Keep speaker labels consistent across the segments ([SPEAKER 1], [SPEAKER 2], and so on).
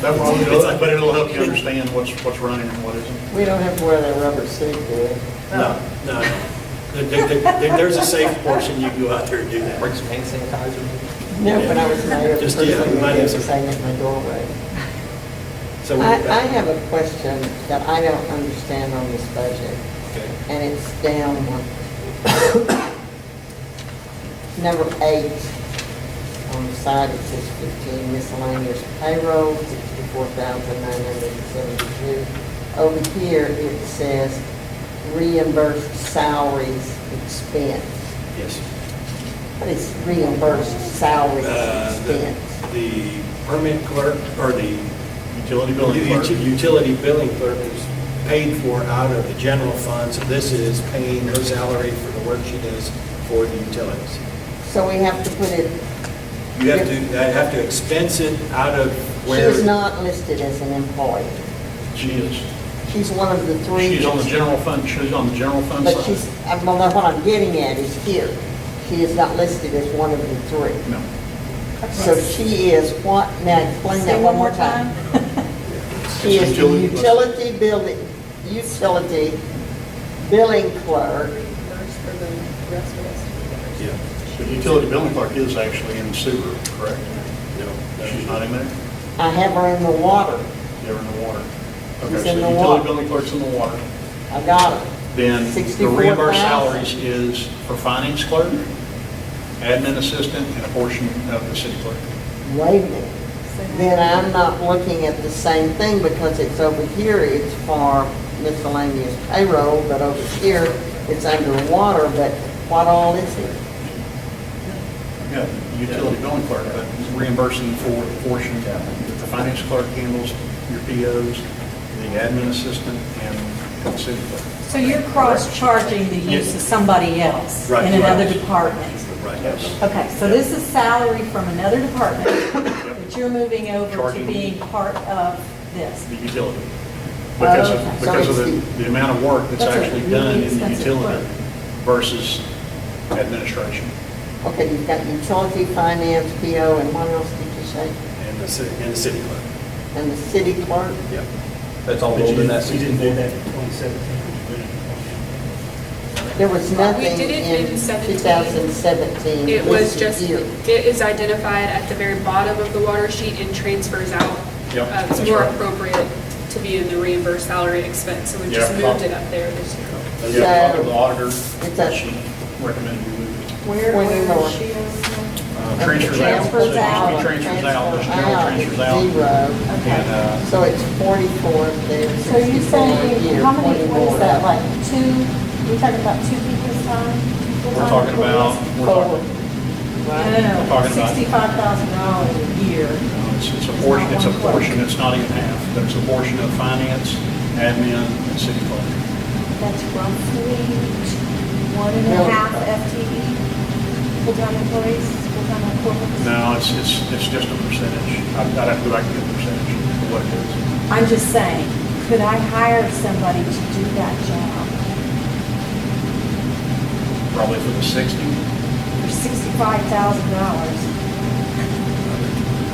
[SPEAKER 1] That probably
[SPEAKER 2] It's
[SPEAKER 1] does,
[SPEAKER 2] like-
[SPEAKER 1] but it'll help you understand what's, what's running and what isn't.
[SPEAKER 3] We don't have to wear that rubber suit, do we?
[SPEAKER 2] No, no, no. There- there- there- There's a safe portion, you go out there and do that.
[SPEAKER 4] Bring some hand sanitizer.
[SPEAKER 3] No, when I was mayor, the
[SPEAKER 2] Just,
[SPEAKER 3] first
[SPEAKER 2] yeah,
[SPEAKER 3] thing
[SPEAKER 2] might
[SPEAKER 3] I did
[SPEAKER 2] have
[SPEAKER 3] was
[SPEAKER 2] some-
[SPEAKER 3] hang at my doorway.
[SPEAKER 2] So we're
[SPEAKER 3] I,
[SPEAKER 2] back.
[SPEAKER 3] I have a question that I don't understand on this budget,
[SPEAKER 2] Okay.
[SPEAKER 3] and it's down one. Number eight, on the side it says fifteen miscellaneous payroll, sixty-four thousand nine hundred and seventy-two. Over here, it says reimbursed salaries expense.
[SPEAKER 2] Yes.
[SPEAKER 3] What is reimbursed salary
[SPEAKER 2] Uh, The
[SPEAKER 3] expense?
[SPEAKER 2] the permit clerk, or the
[SPEAKER 1] Utility billing
[SPEAKER 2] ut-
[SPEAKER 1] clerk.
[SPEAKER 2] utility billing clerk is paid for out of the general fund, so this is paying her salary for the work she does for the utilities.
[SPEAKER 3] So we have to put it,
[SPEAKER 2] You have to, I have to expense it out of
[SPEAKER 3] she
[SPEAKER 2] where...
[SPEAKER 3] is not listed as an employee.
[SPEAKER 1] She is,
[SPEAKER 3] She's one of the three.
[SPEAKER 1] she's on the general fund, she's on the general fund
[SPEAKER 3] But she's,
[SPEAKER 1] side.
[SPEAKER 3] I well, that's what I'm getting at is here. She is not listed as one of the three.
[SPEAKER 1] No.
[SPEAKER 3] So she is what, now explain that one more time. She is the
[SPEAKER 1] Utility-
[SPEAKER 3] utility building, utility billing clerk.
[SPEAKER 5] reimbursed for the rest of us.
[SPEAKER 2] Yeah,
[SPEAKER 1] The utility billing clerk is actually in sewer, correct?
[SPEAKER 2] no. no.
[SPEAKER 1] She's not in there?
[SPEAKER 3] I have her in the water.
[SPEAKER 1] They're in the water.
[SPEAKER 3] She's
[SPEAKER 1] Okay, so
[SPEAKER 3] in the
[SPEAKER 1] Utility
[SPEAKER 3] water.
[SPEAKER 1] billing clerk's in the water.
[SPEAKER 3] I got her.
[SPEAKER 1] Then the
[SPEAKER 3] 64,000.
[SPEAKER 1] reimbursed salaries is for finance clerk, admin assistant, and a portion of the city clerk.
[SPEAKER 3] Wait a minute. Then I'm not looking at the same thing because it's over here, it's for miscellaneous payroll, but over here, it's underwater, but what all is it?
[SPEAKER 1] Yeah, utility billing clerk, but reimbursing for a portion that the finance clerk handles, your POs, the admin assistant, and the city clerk.
[SPEAKER 6] So you're cross-charging the use of somebody else
[SPEAKER 2] Right,
[SPEAKER 6] in another
[SPEAKER 2] right.
[SPEAKER 6] department?
[SPEAKER 2] Right.
[SPEAKER 1] Yes.
[SPEAKER 6] Okay, so this is salary from another department that you're moving over
[SPEAKER 1] Charging.
[SPEAKER 6] to being part of this.
[SPEAKER 1] The utility. Because
[SPEAKER 6] Oh,
[SPEAKER 1] of,
[SPEAKER 6] okay.
[SPEAKER 1] because of the, the amount of work that's
[SPEAKER 6] That's a
[SPEAKER 1] actually
[SPEAKER 6] really
[SPEAKER 1] done in the
[SPEAKER 6] expensive
[SPEAKER 1] utility
[SPEAKER 6] clerk.
[SPEAKER 1] versus administration
[SPEAKER 3] Okay, you've got utility, finance, PO, and what else did you say?
[SPEAKER 2] And the city, and the city clerk,
[SPEAKER 3] And the city clerk?
[SPEAKER 2] yeah.
[SPEAKER 4] That's all rolled in that
[SPEAKER 7] We didn't do
[SPEAKER 4] 64.
[SPEAKER 7] that in 2017.
[SPEAKER 3] There was
[SPEAKER 5] We
[SPEAKER 3] nothing
[SPEAKER 5] did it
[SPEAKER 3] in
[SPEAKER 5] in 17.
[SPEAKER 3] 2017
[SPEAKER 5] It was
[SPEAKER 3] listed
[SPEAKER 5] just,
[SPEAKER 3] here.
[SPEAKER 5] it is identified at the very bottom of the water sheet and transfers out.
[SPEAKER 1] Yep,
[SPEAKER 5] Uh, It's
[SPEAKER 1] that's
[SPEAKER 5] more
[SPEAKER 1] right.
[SPEAKER 5] appropriate to be in the reimbursed salary expense, so we just
[SPEAKER 1] Yeah.
[SPEAKER 5] moved it up there this year.
[SPEAKER 1] Yeah, talk to the auditor,
[SPEAKER 3] It's a-
[SPEAKER 1] she recommended we move it.
[SPEAKER 6] Where,
[SPEAKER 3] Where is
[SPEAKER 6] where is
[SPEAKER 3] she?
[SPEAKER 6] she? on?
[SPEAKER 1] Uh, Transfers out, so it used to
[SPEAKER 6] Transfers
[SPEAKER 1] be transfers out,
[SPEAKER 6] out.
[SPEAKER 1] there's general transfers
[SPEAKER 3] Transfer
[SPEAKER 1] out.
[SPEAKER 3] out, it's Zero.
[SPEAKER 1] And,
[SPEAKER 6] Okay.
[SPEAKER 1] uh,
[SPEAKER 3] So it's 44 there,
[SPEAKER 6] So you're
[SPEAKER 3] 64
[SPEAKER 6] saying,
[SPEAKER 3] here,
[SPEAKER 6] how many,
[SPEAKER 3] 20
[SPEAKER 6] what is
[SPEAKER 3] more.
[SPEAKER 6] that, like two, we're talking about two people's time? People's
[SPEAKER 1] we're
[SPEAKER 6] time
[SPEAKER 1] talking
[SPEAKER 6] for
[SPEAKER 1] about,
[SPEAKER 6] this?
[SPEAKER 1] we're
[SPEAKER 3] Forward.
[SPEAKER 1] talking,
[SPEAKER 6] No, no,
[SPEAKER 1] We're
[SPEAKER 6] no,
[SPEAKER 1] talking about-
[SPEAKER 6] sixty-five thousand dollars a year.
[SPEAKER 1] No, It's it's a portion, it's a portion, it's not even half, but it's a portion of finance, admin, and city clerk.
[SPEAKER 8] That's roughly one and a half FTE,
[SPEAKER 6] E
[SPEAKER 8] full-time employees, full-time equivalents.
[SPEAKER 1] No, it's, it's, it's just a percentage. I'd I'd have to go back and get the percentage of what it is.
[SPEAKER 6] I'm just saying,
[SPEAKER 8] Could I hire somebody to do that job
[SPEAKER 1] Probably for the 60.
[SPEAKER 8] for sixty-five thousand dollars?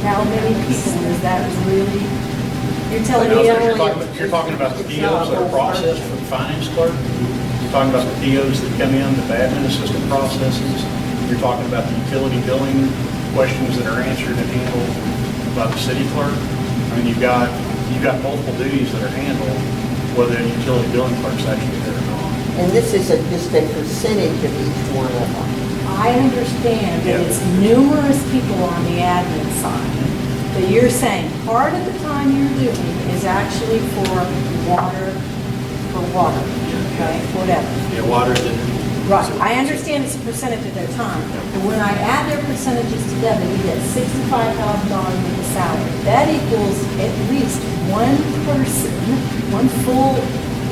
[SPEAKER 8] How many people is that really?
[SPEAKER 6] you're telling
[SPEAKER 1] Now,
[SPEAKER 6] me
[SPEAKER 1] if You're
[SPEAKER 6] only.
[SPEAKER 1] talking about- you're talking about the
[SPEAKER 3] It's not a
[SPEAKER 1] POs that are
[SPEAKER 3] whole
[SPEAKER 1] processed for the finance clerk. You're talking about the POs that come in, the admin assistant processes. You're talking about the utility billing questions that are answered and handled by the city clerk. I mean, you've got, you've got multiple duties that are handled, whether the utility billing clerk's actually there or not.
[SPEAKER 3] And this is a- just a percentage of each one of them.
[SPEAKER 6] I understand
[SPEAKER 1] Yeah.
[SPEAKER 6] that it's numerous people on the admin side, but you're saying part of the time you're doing is actually for water, for water, okay, whatever.
[SPEAKER 2] Yeah, water didn't.
[SPEAKER 6] Right, I understand it's a percentage of their time, but when I add their percentages together, we get sixty-five thousand dollars in the salary. That equals at least one person, one full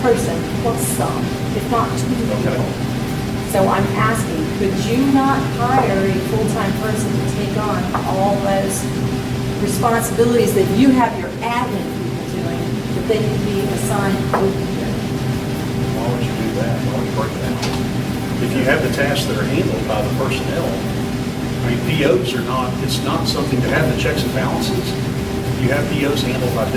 [SPEAKER 6] person plus some, if not two people. So I'm asking, could you not hire a full-time person to take on all those responsibilities that you have your admin people doing, that they can be assigned over here?
[SPEAKER 1] Why would you do that? Why would you break it down? If you have the tasks that are handled by the personnel, I mean, POs are not, it's not something to have the checks and balances. you have POs handled by